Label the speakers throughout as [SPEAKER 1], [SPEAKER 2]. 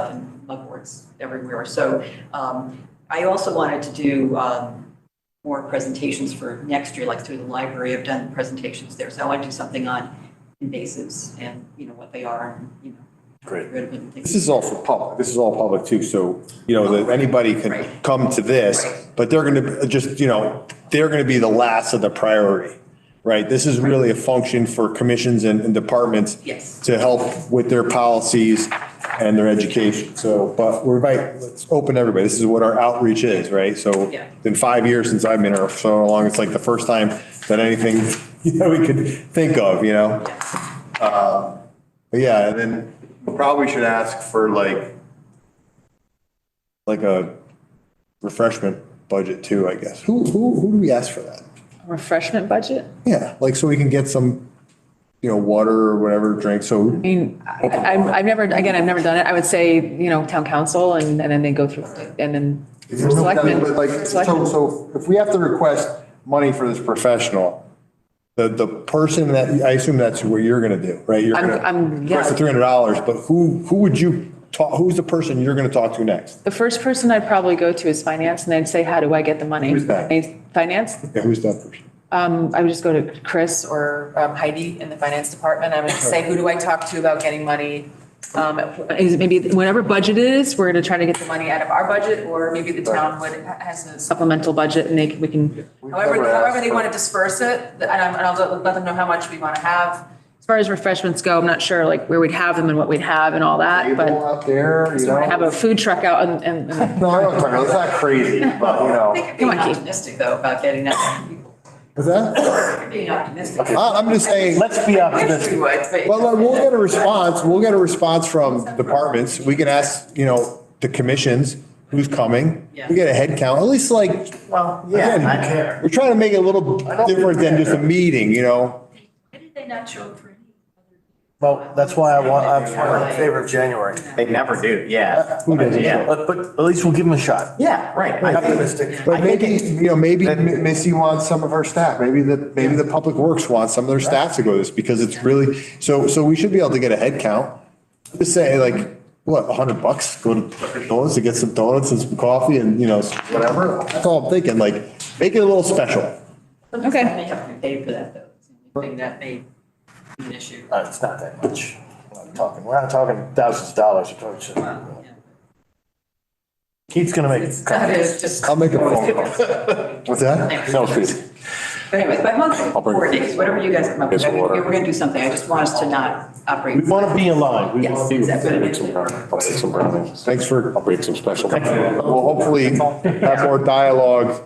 [SPEAKER 1] um, mugboards everywhere. So um, I also wanted to do um, more presentations for next year, like through the library, I've done presentations there. So I want to do something on invasives and, you know, what they are and, you know.
[SPEAKER 2] Great.
[SPEAKER 1] get Rid of them and things.
[SPEAKER 2] This is all for public, this is all public too, so, you know, that anybody
[SPEAKER 1] Right.
[SPEAKER 2] can come to this, but they're gonna just, you know, they're gonna be the last of the priority, right? This is really a function for commissions and, and departments
[SPEAKER 1] Yes,
[SPEAKER 2] to help with their policies and their education, so, but we're right, let's open everybody, this is what our outreach is, right? So,
[SPEAKER 1] Yeah.
[SPEAKER 2] in five years since I've been here, so long, it's like the first time that anything, you know, we could think of, you know? Um,
[SPEAKER 1] yes,
[SPEAKER 2] But Yeah, and then we probably should ask for like, like a refreshment budget too, I guess. Who, who, who do we ask for that?
[SPEAKER 3] refreshment budget?
[SPEAKER 2] Yeah, like so we can get some, you know, water or whatever drink, so
[SPEAKER 3] I mean, I- I'm, I've never, again, I've never done it. I would say, you know, town council and, and then they go through and then selectmen.
[SPEAKER 2] But Like, so,
[SPEAKER 3] selectmen.
[SPEAKER 2] so if we have to request money for this professional, the, the person that, I assume that's what you're gonna do, right? You're
[SPEAKER 3] I'm-
[SPEAKER 2] gonna
[SPEAKER 3] I'm- yeah.
[SPEAKER 2] Request the three hundred dollars, but who, who would you talk, who's the person you're gonna talk to next?
[SPEAKER 3] The first person I'd probably go to is finance and I'd say, how do I get the money?
[SPEAKER 2] Who's that?
[SPEAKER 3] And Finance?
[SPEAKER 2] Yeah, who's that person?
[SPEAKER 3] Um, I would just go to Chris or um, Heidi in the finance department. I would say, who do I talk to about getting money? Um, is it maybe whatever budget it is, we're gonna try to get the money out of our budget, or maybe the town would, has a supplemental budget and they, can- we can,
[SPEAKER 2] We've
[SPEAKER 3] however,
[SPEAKER 2] never asked
[SPEAKER 3] however they
[SPEAKER 2] for-
[SPEAKER 3] wanna disperse it, and I'm- and I'll let them know how much we wanna have. As far as refreshments go, I'm not sure like where we'd have them and what we'd have and all that,
[SPEAKER 2] Table
[SPEAKER 3] Uh, but
[SPEAKER 2] out there, you
[SPEAKER 3] so I have
[SPEAKER 2] know?
[SPEAKER 3] a food truck out and, and- and
[SPEAKER 2] No, I don't talk, it's not crazy, but you
[SPEAKER 1] I
[SPEAKER 2] know.
[SPEAKER 1] think I'm being
[SPEAKER 3] Come on, Keith.
[SPEAKER 1] optimistic though about getting that many people.
[SPEAKER 2] Is that?
[SPEAKER 1] I'm being optimistic.
[SPEAKER 2] I- I'm just saying,
[SPEAKER 4] Let's be
[SPEAKER 1] Wish we
[SPEAKER 4] optimistic.
[SPEAKER 1] would, but.
[SPEAKER 2] well, like, we'll get a response, we'll get a response from departments. We can ask, you know, the commissions, who's coming. We get a head count, at least like,
[SPEAKER 4] Well,
[SPEAKER 2] again,
[SPEAKER 4] I care.
[SPEAKER 2] we're trying to make it a little
[SPEAKER 4] don't
[SPEAKER 2] different than just a meeting, you know?
[SPEAKER 5] Why did they not show up for any other?
[SPEAKER 4] Well, that's why I want, I'm in favor of January.
[SPEAKER 6] They never do, yeah.
[SPEAKER 2] Uh, Who doesn't?
[SPEAKER 6] Yeah.
[SPEAKER 4] But, but at least we'll give them a shot.
[SPEAKER 6] Yeah, right. I think-
[SPEAKER 4] Optimistic.
[SPEAKER 2] But maybe, you know, maybe M- Missy wants some of her staff, maybe the, maybe the Public Works wants some of their staff to go to this because it's really, so, so we should be able to get a head count. Just say like, what, a hundred bucks, go to Dunkin' Donuts to get some donuts and some coffee and, you know, whatever. That's all I'm thinking, like, make it a little special.
[SPEAKER 1] Okay. May have to pay for that though. It's the only Thing that may be an issue.
[SPEAKER 4] Uh, It's not that much. We're not talking- We're not talking thousands of dollars. We're talking-
[SPEAKER 1] Yeah.
[SPEAKER 4] Keith's gonna make.
[SPEAKER 1] It's not, it's just.
[SPEAKER 2] I'll make a phone call. What's that?
[SPEAKER 1] No, Anyways, by month, four days, whatever you guys come up with, I mean, we're gonna do something, I just want us to not
[SPEAKER 4] We
[SPEAKER 1] operate.
[SPEAKER 4] want to be in line. We
[SPEAKER 1] Yes,
[SPEAKER 4] wanna be-
[SPEAKER 1] exactly.
[SPEAKER 7] Make some brownies, I'll make some brownies.
[SPEAKER 2] Thanks for,
[SPEAKER 7] I'll bake some special.
[SPEAKER 2] we'll hopefully have more dialogue,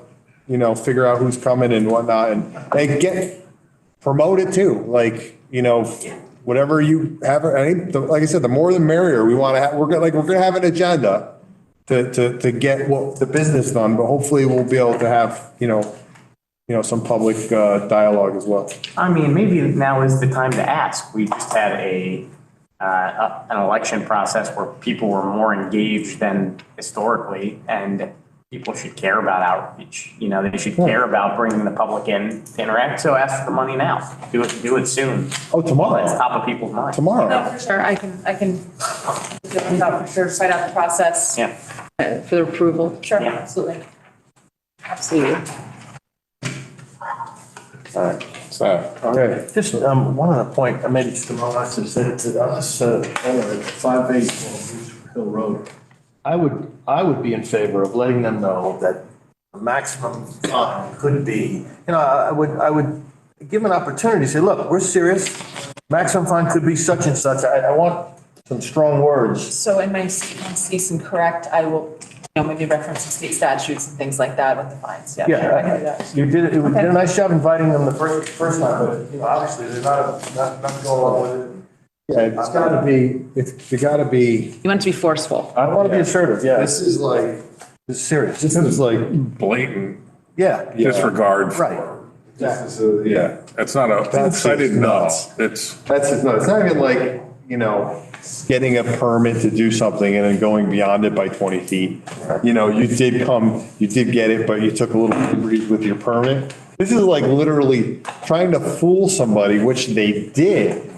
[SPEAKER 2] you know, figure out who's coming and whatnot and, and get, promote it too, like, you know, whatever you have, I think, the- like I said, the more the merrier, we want to have, we're gonna, like, we're gonna have an agenda to, to, to get what, the business done, but hopefully we'll be able to have, you know, you know, some public, uh, dialogue as well.
[SPEAKER 6] I mean, maybe now is the time to ask. We just had a, uh, a- an election process where people were more engaged than historically, and people should care about outreach. You know, they should care about bringing the public in to interact, so ask for the money now. Do it, do it soon.
[SPEAKER 2] Oh,
[SPEAKER 6] It's
[SPEAKER 2] tomorrow,
[SPEAKER 6] top of people's minds.
[SPEAKER 3] No,
[SPEAKER 2] tomorrow.
[SPEAKER 3] for sure, I can, I can, for sure, find out the process.
[SPEAKER 6] Yeah.
[SPEAKER 3] uh, For the approval. Sure,
[SPEAKER 6] Yeah.
[SPEAKER 3] absolutely. Absolutely.
[SPEAKER 7] So,
[SPEAKER 2] Okay.
[SPEAKER 4] Just um, one other point, uh, maybe just a moment, is that to us, uh, owner, five eight Hill Road. I would, I would be in favor of letting them know that the maximum fine could be, you know, I I would, I would give them an opportunity, to say, look, we're serious. Maximum fine could be such and such. I, I want some strong words.
[SPEAKER 3] So in my ce- my cease and correct, I will, you know, maybe reference some state statutes and things like that with the fines, yeah. sure, I can do
[SPEAKER 4] Yeah,
[SPEAKER 3] that.
[SPEAKER 4] I- you did, it. you did a nice job inviting them the first, first time, but, you know, obviously, they're not, not, not going along with it.
[SPEAKER 2] Yeah, it's gotta be, it's, you gotta be,
[SPEAKER 3] You want it to be forceful.
[SPEAKER 4] I want to be assertive, yeah.
[SPEAKER 2] this is like,
[SPEAKER 4] It's serious.
[SPEAKER 2] this is like,
[SPEAKER 7] blatant
[SPEAKER 4] Yeah.
[SPEAKER 7] disregard
[SPEAKER 4] Right.
[SPEAKER 7] for,
[SPEAKER 2] this is, a- yeah.
[SPEAKER 7] yeah, it's not a,
[SPEAKER 2] That's
[SPEAKER 7] I did
[SPEAKER 2] nuts.
[SPEAKER 7] not, it's,
[SPEAKER 2] That's just, no, it's not even like, you know, getting a permit to do something and then going beyond it by 20 feet. You know, you did come, you did get it, but you took a little liberties with your permit. This is like literally trying to fool somebody, which they did.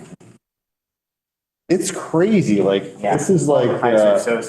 [SPEAKER 2] It's crazy, like, this is like.
[SPEAKER 6] I
[SPEAKER 2] uh,
[SPEAKER 6] so